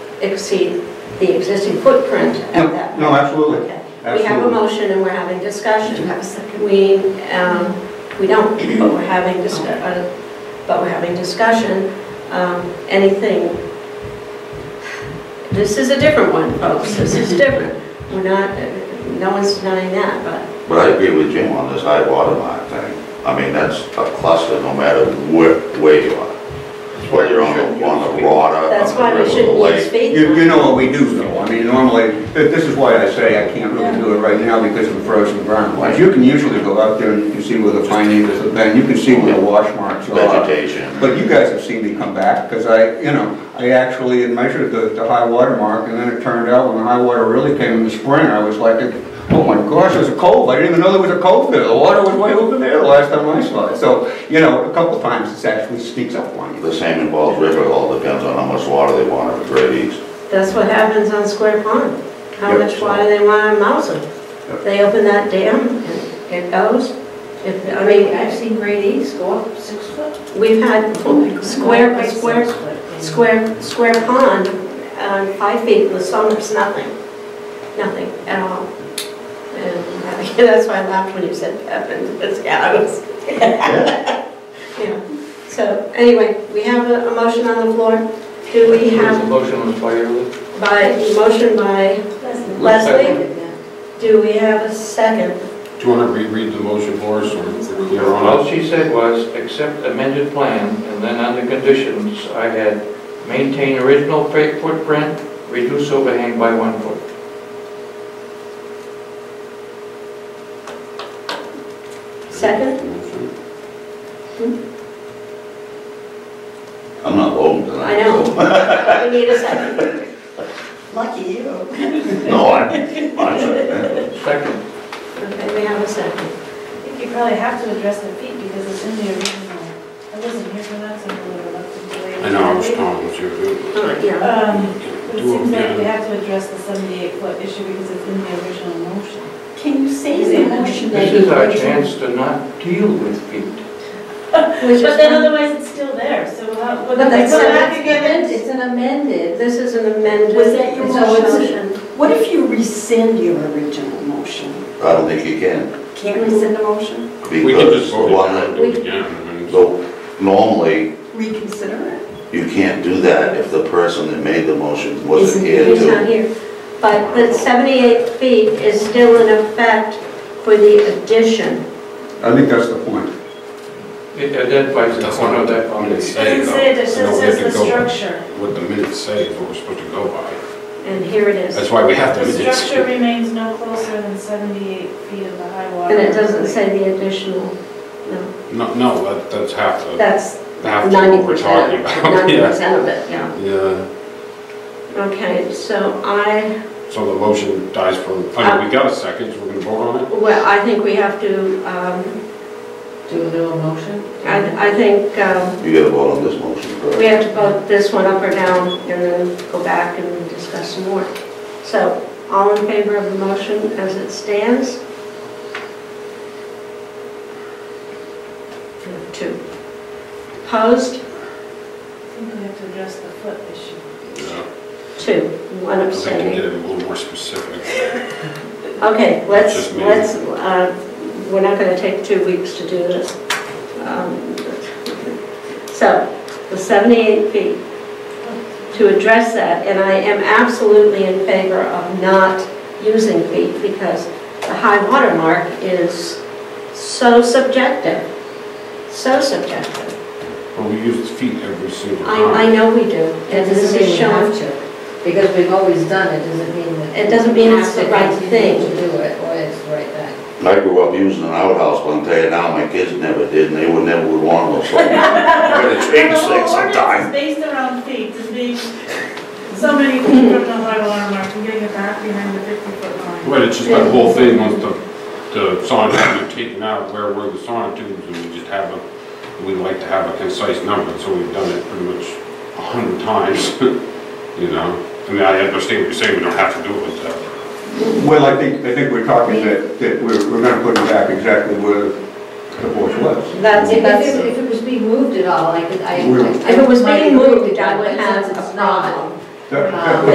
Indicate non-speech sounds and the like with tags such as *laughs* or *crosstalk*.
exceed the existing footprint No, at that. no, absolutely. Okay. We have a Absolutely. motion and we're having Do you discussion. have a second? We, um, we don't, but we're having discussion, but we're having discussion. Um, Anything, this is a different one, folks, this is different. We're not, no one's denying that, but But I agree with Jim on this high water line thing. I mean, that's a cluster no matter where, where you are. Whether you're on the, on the water, that's on why the we river, the shouldn't use lake. faith. You, you know what we do though, I mean, normally, th- this is why I say I can't really do it right now because of the frozen ground. But you can usually go out there and you can see where the fine needles have been, you can see where the wash marks are. Vegetation. But you guys have seen me come back, because I, you know, I actually had measured the, the high water mark, and then it turned out when the high water really came in the spring, I was like, oh my gosh, there's a cove, I didn't even know there was a cove there, the water was way over there the last time I saw it. So, you know, a couple times it actually sneaks up on you. The same involves river, it all depends on how much water they want at the grade east. That's what happens on Square Pond. How Yep. much water they want on Mouser. Yep. They open that dam and it goes. If, I mean, I've seen grade E's go up six foot. we've had square by square, square, square pond, um, five feet in the summer is nothing, nothing at all. And *laughs* uh, that's why I laughed when you said Pepin, it's Adams. *laughs* Yeah. So anyway, we have a a motion on the floor. Do we There's a have, motion on the floor, Earl. by, motion by Leslie, do we have a second? Do you want to reread the motion for us, or we're clear All on it? she said was, accept amended plan, and then under conditions, I had maintain original fa- footprint, reduce overhang by one foot. Second? I'm not voting tonight. I know. We need a second. Lucky you. so- *laughs* No, I, I'm sorry. Second, Okay, we have a second. I think you probably have to address the feet because it's in the original. I wasn't here for that, so I'm a little reluctant to wait. I know, I was calling with you. All right, yeah. Um, But it Do seems them like we again. have to address the 78 foot issue because it's in the original motion. Can you say the motion that this you... is our chance to not deal with feet. Which But then is, otherwise it's still there, so how, would But they that's come not- back again? It's an amended. this is an amended. Was that your it's a motion? What if you rescind your original motion? I don't think you can. Can't rescind a motion? We can Because just vote it one, and do it again. I mean, it's- so normally, Reconsider it? you can't do that if the person that made the motion wasn't Isn't- here He's to. not here. But the 78 feet is still in effect for the addition. I think that's the point. It identifies the That's corner not of that what the minutes foundation. It say, doesn't say, it just though. So we says have the to go by structure. What the minutes say, is what we're supposed to go by. And here it is. That's why we have the The minutes. structure remains no closer than 78 feet of the high water. And it doesn't say the additional, no. No, no, that- that's half the, That's half of 90%. what we're talking about. *laughs* Yeah. 90% of it, yeah. Yeah, Okay, so I, so the motion dies from, I mean, we got a second, so we're going to vote on it? well, I think we have to, um, Do a little motion? I I think um, You gotta vote on this motion, correct? We have to vote this one up or down and then go back and discuss some more. So, all in favor of the motion as it stands? We have Two. Opposed? I think we have to address the foot issue. Yeah. Two. One I think we abstaining. did it a little more specific. Okay, let's, Just me. let's, uh, we're not going to take two weeks to do this. Um, So, the 78 feet, to address that, and I am absolutely in favor of not using feet because the high water mark is so subjective, so subjective. But we used feet every single I, I time. know we do, and this is shown, to, because we've always done it, doesn't mean that. It doesn't mean it's the we right have to thing. continue To do it, or it's the right thing. I grew up using an outhouse, but I'm telling you now, my kids never did, and they would never would want one, so I'm gonna change things sometime. The whole ordinance is based around feet, as being so many feet from the high water mark, and getting it back behind the 50-foot line. But it's just that whole thing, once the, the sonotubes are taken out, where were the sonotubes, and we just have a, we like to have a concise number, so we've done it pretty much a hundred times, *laughs* you know? I mean, I understand what you're saying, we don't have to do it with that. Well, I think, I think we're talking that, that we're, we're gonna put it back exactly where the voice was. that's, If that's, it, if it was being moved at all, I could, I. We're- I- I if it was might being agree moved, with I that, would but have since a it's not, problem. That- that- Um,